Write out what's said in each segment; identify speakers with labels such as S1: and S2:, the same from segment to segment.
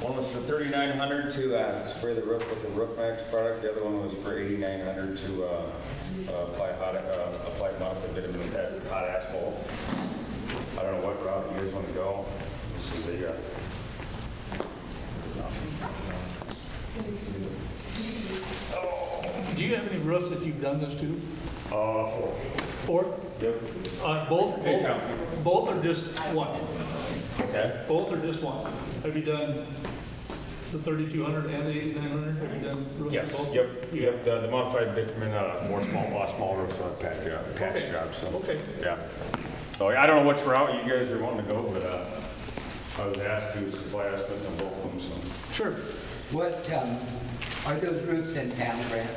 S1: One was for thirty-nine hundred to uh, spray the roof with the Roof Max product. The other one was for eighty-nine hundred to uh, uh, apply hot, uh, apply modified bitumen with that hot asphalt. I don't know what route you guys want to go. This is the, uh,
S2: Do you have any roofs that you've done this to?
S1: oh,
S2: Or,
S1: yep,
S2: uh, both,
S1: Hey,
S2: both,
S1: Tom.
S2: both are just one?
S1: what's that?
S2: Both are just one? Have you done the 3,200 and the 8,900? Have you done roofs
S1: Yes,
S2: of both?
S1: yep,
S2: You
S1: yep, the the modified bitumen, uh, more small, a lot smaller roof, uh, patch job, patch
S2: Okay.
S1: job,
S2: have?
S1: so.
S2: Okay.
S1: Yeah. So I don't know which route you guys are wanting to go, but uh, I was asked to supply estimates on both of them, so.
S2: Sure.
S3: What, um, are those roofs in town, Brent?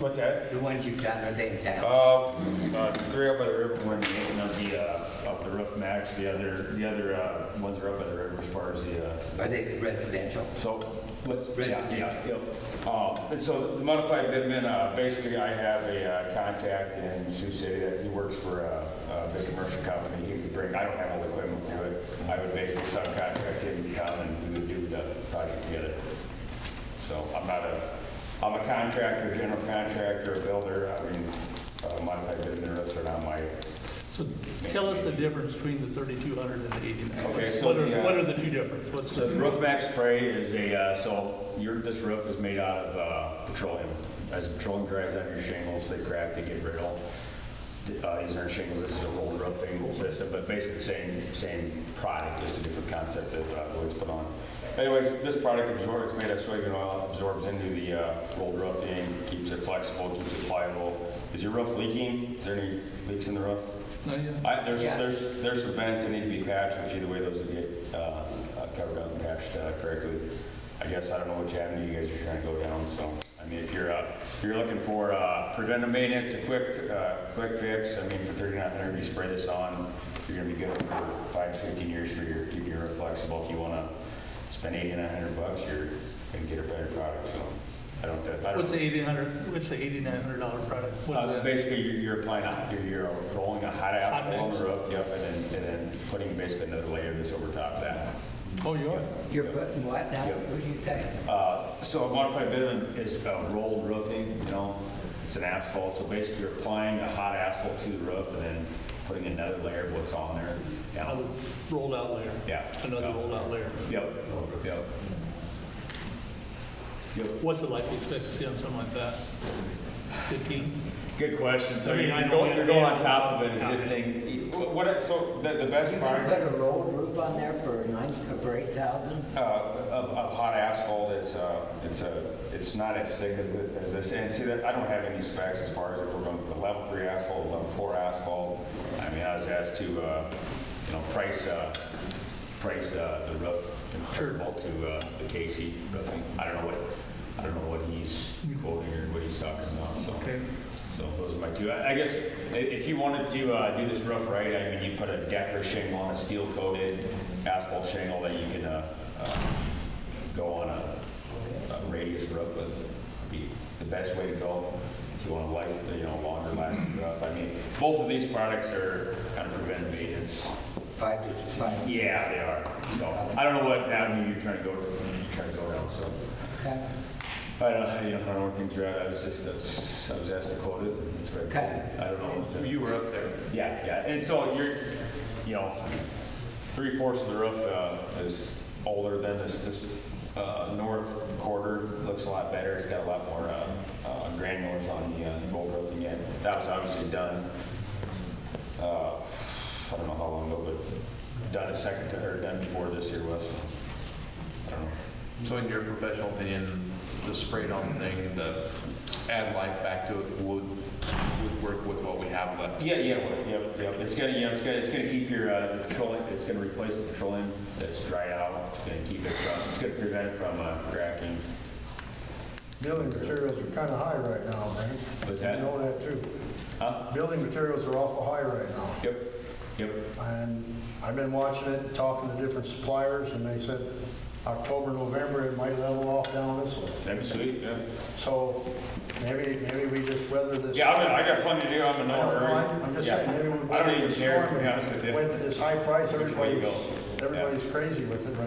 S1: What's that?
S3: The ones you've done, are they in town?
S1: Uh, uh, three up by the river, one getting up the, uh, up the roof max, the other, the other, uh, ones are up by the river as far as the, uh,
S3: Are they residential?
S1: So, let's.
S3: Residential.
S1: Yeah, yeah, yep. Um, And so the modified bitumen, uh, basically, I have a uh, contact in Sioux City that he works for a, a big commercial company. He would bring, I don't have all the equipment to do it. I would basically subcontract him to come and we would do the project together. So I'm not a, I'm a contractor, general contractor, a builder. I mean, uh, modified bitumen roofs are not my,
S2: So tell us the difference between the 3,200 and the 8,900.
S1: Okay, so
S2: What are-
S1: the, uh,
S2: What are the two differences? What's
S1: So the
S2: the,
S1: roof max spray is a, uh, so your, this roof is made out of uh, petroleum. As petroleum dries out your shingles, they crack, they get brittle. The, uh, These aren't shingles, this is a rolled roof angle system, but basically the same, same product, just a different concept that uh, Lloyd's put on. Anyways, this product absorbs, it's made of soybean oil, absorbs into the uh, rolled roof thing, keeps it flexible, keeps it pliable. Is your roof leaking? Is there any leaks in the roof?
S2: no, yeah.
S1: I, there's,
S3: Yeah.
S1: there's, there's some vents that need to be patched, which either way, those will get, uh, uh, covered up and patched, uh, correctly. I guess, I don't know which avenue you guys are trying to go down, so, I mean, if you're, uh, if you're looking for, uh, preventive maintenance, a quick, uh, quick fix, I mean, for thirty-nine hundred, you spray this on, you're gonna be good for five, fifteen years for your, keeping your roof flexible. If you wanna spend eighty-nine hundred bucks, you're gonna get a better product, so, I don't, I don't.
S2: What's the 8,800, what's the $8,900 product? What's
S1: Uh,
S2: that?
S1: Basically, you're- you're applying a, you're- you're rolling a hot asphalt on
S2: mix.
S1: the roof, yep, and then, and then putting basically another layer of this over top of that.
S2: Oh, you are?
S3: You're putting what now?
S1: Yeah.
S3: What'd you say?
S1: Uh, So a modified bitumen is uh, rolled roofing, you know, it's an asphalt, so basically you're applying a hot asphalt to the roof and then putting another layer of what's on there. Yeah,
S2: Another rolled out layer.
S1: Yeah.
S2: Another
S1: Yeah.
S2: rolled out layer.
S1: Yep, yep. Yep.
S2: What's it likely expect to see on something like that? 15?
S1: Good question, so
S2: I mean,
S1: you're
S2: I know
S1: going,
S2: we-
S1: you're going on
S2: yeah.
S1: top of an existing, what, what- so the, the best
S3: You
S1: part.
S3: can put a rolled roof on there for nine, for eight thousand?
S1: Uh, Of of hot asphalt, it's, uh, it's a, it's not as thick as it- as this, and see, that I don't have any specs as far as if we're going for level three asphalt, level four asphalt. I mean, I was asked to, uh, you know, price, uh, price uh, the roof comparable to uh, the Casey roofing. I don't know what, I don't know what he's quoting or what he's talking about, so.
S2: Okay.
S1: So those are my two. I I guess i- if you wanted to uh, do this roof right, I mean, you put a decker shingle on a steel coated asphalt shingle that you can uh, uh, go on a a radius roof with. Be the best way to go if you want a light, you know, longer lasting roof. I mean, both of these products are kind of preventive maintenance.
S3: Five to five.
S1: Yeah, they are. So I don't know what avenue you're trying to go, you're trying to go down, so.
S3: Okay.
S1: I don't, I don't know where things are at. I was just, that's- I was asked to quote it. and It's right.
S3: Okay.
S1: I don't know. if-
S4: You were up there.
S1: Yeah, yeah, and so you're, you know, three fourths of the roof uh, is older than this, this uh, north quarter, looks a lot better, it's got a lot more uh, uh, granulars on the uh, gold roofing yet. That was obviously done, uh, I don't know how long ago, but done a second, to- or done before this year was, I don't know.
S4: So in your professional opinion, the sprayed-on thing, the add life back to it would, would work with what we have left?
S1: Yeah, yeah, well, yep, yep. It's gonna, you know, it's gonna, it's gonna keep your uh, petroleum, it's gonna replace the petroleum that's dried out. It's gonna keep it from, it's gonna prevent it from uh, cracking.
S5: Building materials are kind of high right now, man.
S1: What's that?
S5: You know that too.
S1: Huh?
S5: Building materials are awful high right now.
S1: Yep, yep.
S5: And I've been watching it, talking to different suppliers, and they said October, November, it might level off down this way.
S1: That'd be sweet, yeah.
S5: So maybe, maybe we just weather this.
S1: Yeah, I'm, in- I got plenty to do, I'm in
S5: I
S1: no
S5: don't
S1: hurry.
S5: mind. I'm just
S1: Yeah.
S5: saying, maybe we
S1: I
S5: weather
S1: don't even
S5: this storm
S1: care, to be honest with
S5: and
S1: you.
S5: went to this high price,
S1: Which way you
S5: everybody's,
S1: go. Yeah.
S5: everybody's crazy with it right